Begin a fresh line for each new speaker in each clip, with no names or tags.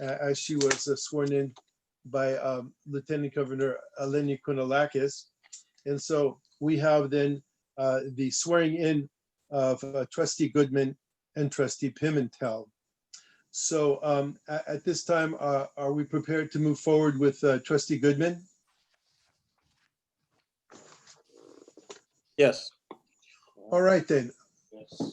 a- as she was uh, sworn in by um, Lieutenant Governor Eleni Kunalakis. And so we have then uh, the swearing in of uh, trustee Goodman and trustee Pimentel. So um, a- at this time, uh, are we prepared to move forward with uh, trustee Goodman?
Yes.
All right then,
Yes.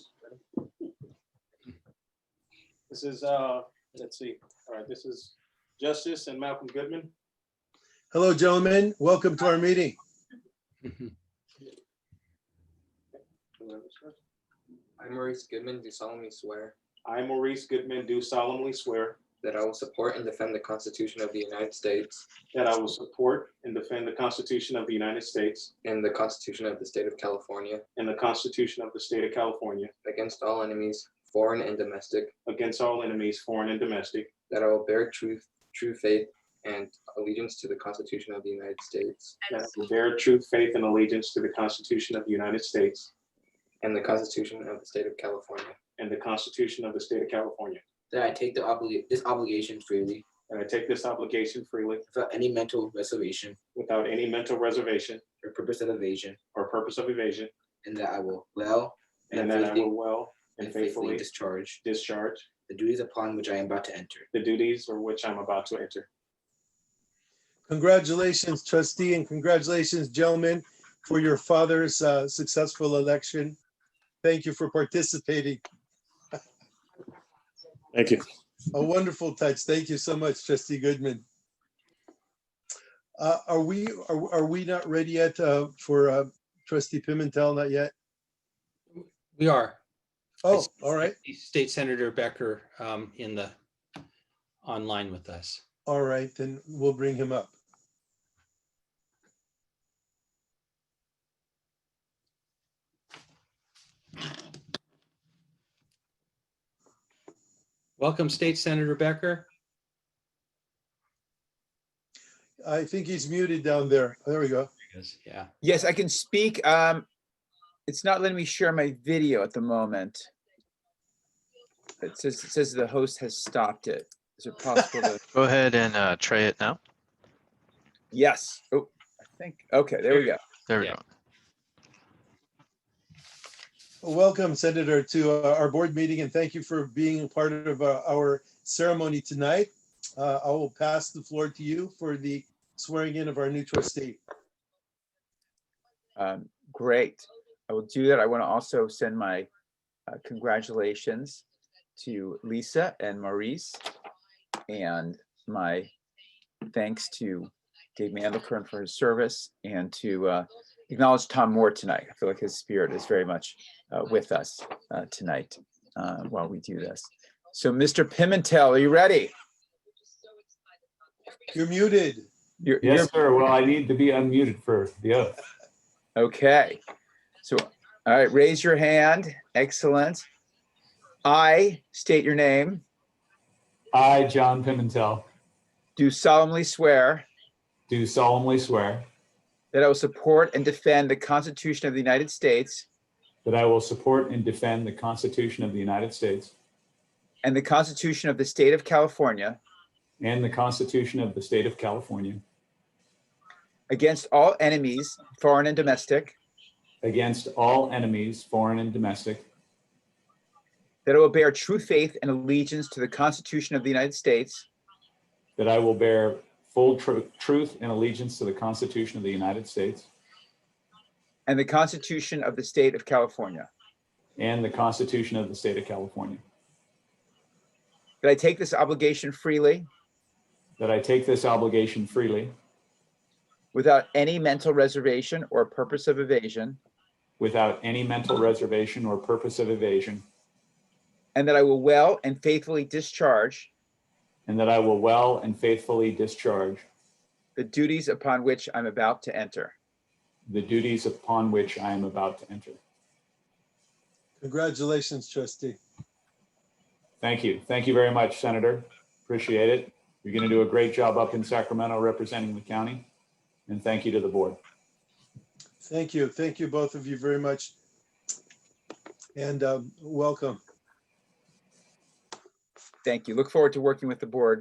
This is, uh, let's see, all right, this is Justice and Malcolm Goodman.
Hello, gentlemen. Welcome to our meeting.
I, Maurice Goodman, do solemnly swear
I, Maurice Goodman, do solemnly swear
that I will support and defend the Constitution of the United States
that I will support and defend the Constitution of the United States
and the Constitution of the State of California
and the Constitution of the State of California
against all enemies, foreign and domestic,
against all enemies, foreign and domestic,
that I will bear true, true faith and allegiance to the Constitution of the United States
that I will bear true faith and allegiance to the Constitution of the United States
and the Constitution of the State of California,
and the Constitution of the State of California.
That I take the obli- this obligation freely,
And I take this obligation freely
without any mental reservation
without any mental reservation
or purpose of evasion,
or purpose of evasion,
and that I will well
and that I will well and faithfully
discharge
discharge
the duties upon which I am about to enter.
the duties for which I'm about to enter.
Congratulations, trustee, and congratulations, gentlemen, for your father's uh, successful election. Thank you for participating.
Thank you.
A wonderful touch. Thank you so much, trustee Goodman. Uh, Are we, are are we not ready yet uh, for uh, trustee Pimentel? Not yet?
We are.
Oh, all right,
State Senator Becker um, in the, online with us.
all right, then we'll bring him up.
Welcome, State Senator Becker.
I think he's muted down there. There we go.
There he is. Yeah,
Yes, I can speak. Um, it's not letting me share my video at the moment. It says, it says the host has stopped it. Is it possible to,
Go ahead and uh, try it now.
yes, oh, I think, okay, there we go.
There we
Yeah.
go.
Welcome, Senator, to uh, our board meeting, and thank you for being a part of uh, our ceremony tonight. Uh, I will pass the floor to you for the swearing in of our new trustee.
Um, great. I will do that. I want to also send my uh, congratulations to Lisa and Maurice and my thanks to Dave Mandelkern for his service and to uh, acknowledge Tom Moore tonight. I feel like his spirit is very much uh, with us uh, tonight uh, while we do this. So Mr. Pimentel, are you ready?
You're muted.
You're- you're-
Yes, sir. Well, I need to be unmuted first. The oath.
Okay, so, all right, raise your hand. Excellent. I state your name,
I, John Pimentel,
do solemnly swear
do solemnly swear
that I will support and defend the Constitution of the United States
that I will support and defend the Constitution of the United States
and the Constitution of the State of California
and the Constitution of the State of California
against all enemies, foreign and domestic,
against all enemies, foreign and domestic,
that I will bear true faith and allegiance to the Constitution of the United States
that I will bear full tru- truth and allegiance to the Constitution of the United States
and the Constitution of the State of California,
and the Constitution of the State of California,
that I take this obligation freely
that I take this obligation freely
without any mental reservation or purpose of evasion,
without any mental reservation or purpose of evasion,
and that I will well and faithfully discharge
and that I will well and faithfully discharge
the duties upon which I'm about to enter.
the duties upon which I am about to enter.
Congratulations, trustee.
Thank you. Thank you very much, Senator. Appreciate it. You're going to do a great job up in Sacramento representing the county. And thank you to the board.
Thank you. Thank you, both of you, very much. And um, welcome.
Thank you. Look forward to working with the board